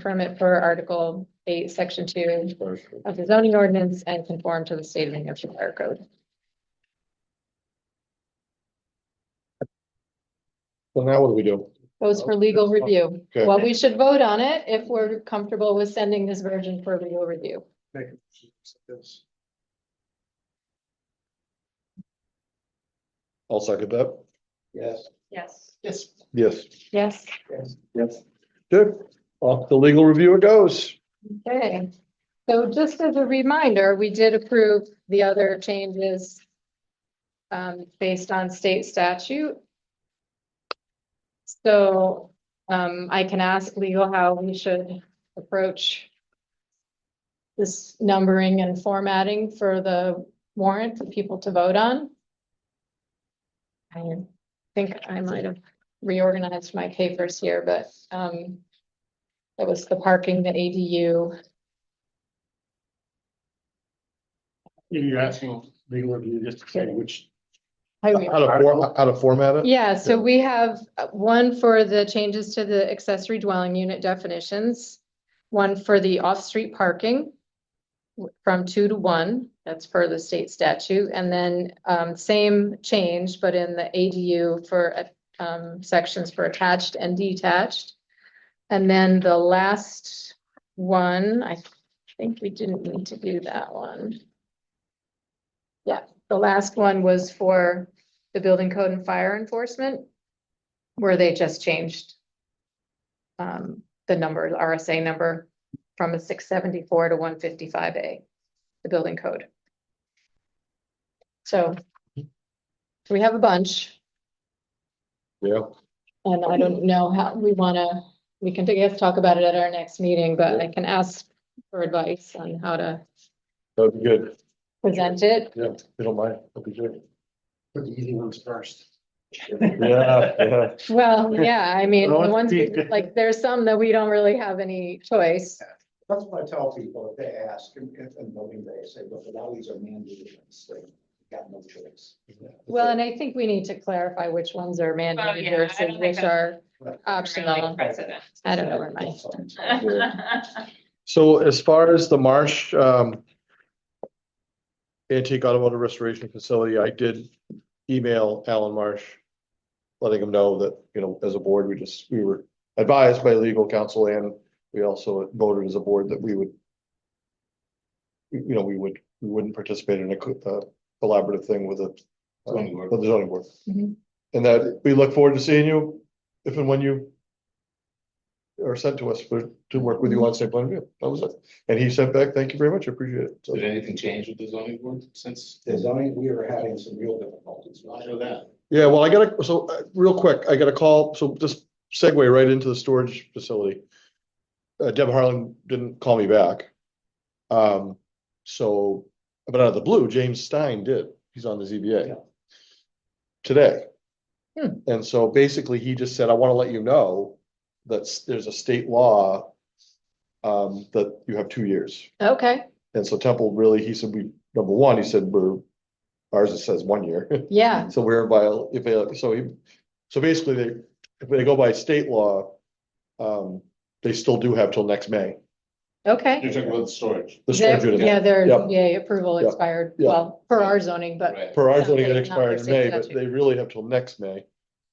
permit per Article eight, Section two of the zoning ordinance and conform to the state of New Hampshire fire code. So now what do we do? Goes for legal review. Okay. Well, we should vote on it if we're comfortable with sending this version for legal review. I'll second that. Yes. Yes. Yes. Yes. Yes, Yes. Yes. Good. Off the legal review it goes. okay. So just as a reminder, we did approve the other changes um, based on state statute. So um, I can ask legal how we should approach this numbering and formatting for the warrant for people to vote on. I think I might have reorganized my papers here, but um. That was the parking, the ADU. You're asking legal review just to say which. highway. How to for, how to format it? Yeah, so we have uh, one for the changes to the accessory dwelling unit definitions. One for the off-street parking. w- From two to one, that's per the state statute, and then um same change, but in the ADU for uh, um sections for attached and detached. And then the last one, I think we didn't need to do that one. Yeah, the last one was for the building code and fire enforcement, where they just changed um, the number, the RSA number from a six seventy-four to one fifty-five A, the building code. So we have a bunch, Yeah. and I don't know how we wanna, we can, I guess, talk about it at our next meeting, but I can ask for advice on how to That'd be good. present it. Yeah, if you don't mind. That'd be good. Put the easy ones first. Yeah, yeah. Well, yeah, I mean, the Well, ones, we- it's- like, there's some that we don't really have any choice. That's what I tell people, if they ask, and, and and voting day, say, look, now these are mandated, so you got no choice. Well, and I think we need to clarify which ones are mandated Oh, yeah, I versus don't which think I- are Right. optional. President. I don't know where my, So as far as the Marsh, um, antique automotive restoration facility, I did email Alan Marsh, letting him know that, you know, as a board, we just, we were advised by legal counsel and we also voted as a board that we would you know, we would, we wouldn't participate in a co- uh, collaborative thing with a, uh, Zoning board. with the zoning board. Mhm. And that we look forward to seeing you if and when you are sent to us for, to work with you on site plan review. That was it. And he sent back, thank you very much, I appreciate it. So- Did anything change with the zoning board since? The zoning, we were having some real difficulties. I know that. Yeah, well, I got a, so, uh, real quick, I got a call, so just segue right into the storage facility. Uh, Deb Harlan didn't call me back. Um, so, but out of the blue, James Stein did, he's on the Yeah. ZBA. Today. Hmm. And so basically, he just said, I wanna let you know that s- there's a state law. Um, that you have two years. okay, And so Temple really, he said, we, number one, he said, we're, ours it says one year. yeah, So we're by, if they, so he, so basically they, if they go by state law, um, they still do have till next May. okay. You're talking about the storage. The storage They're- unit, Yeah, their Yeah. ZBA approval Yeah. expired, Yeah. well, for our zoning, but Right. for ours only it Not expired in for May, state but statute. they really have till next May.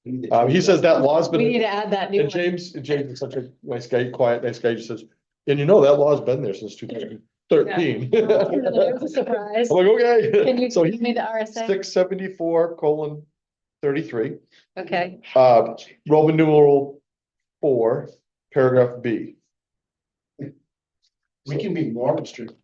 We need to Um, he change says that law's we need been, to add that new and one. James, and James is such a nice guy, quiet, nice guy, he says, and you know, that law's been there since two thousand thirteen. That I'm was a Surprise. like, Can you okay. So give he, me the RSA? six seventy-four colon thirty-three. Okay, Uh, Roman numeral four, paragraph B. We can be more restrictive.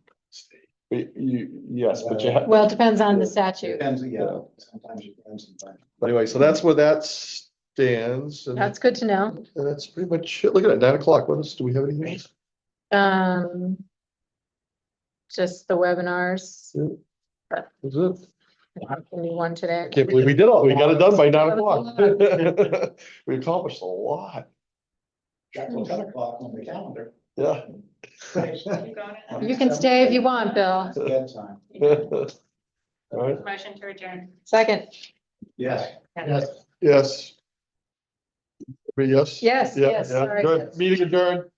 Y- You, yes, but you, ha- well, it depends on the Yeah. statute. Depends, yeah, Yeah. sometimes you can, sometimes. but anyway, so that's where that stands and That's good to know. and that's pretty much it. Look at it, nine o'clock. What else? Do we have anything? else? Um, just the webinars, That's it. I can do one today. I can't believe we did all, we got it done by nine That was o'clock. We accomplished a lot. Got till ten o'clock on the calendar. Yeah. You can stay if you want, Bill. It's bedtime. All right. Motion to adjourn. Second, Yes. Yes. Everybody yes, Yes. Yeah, yes, yeah. sorry. Good. Meeting adjourned.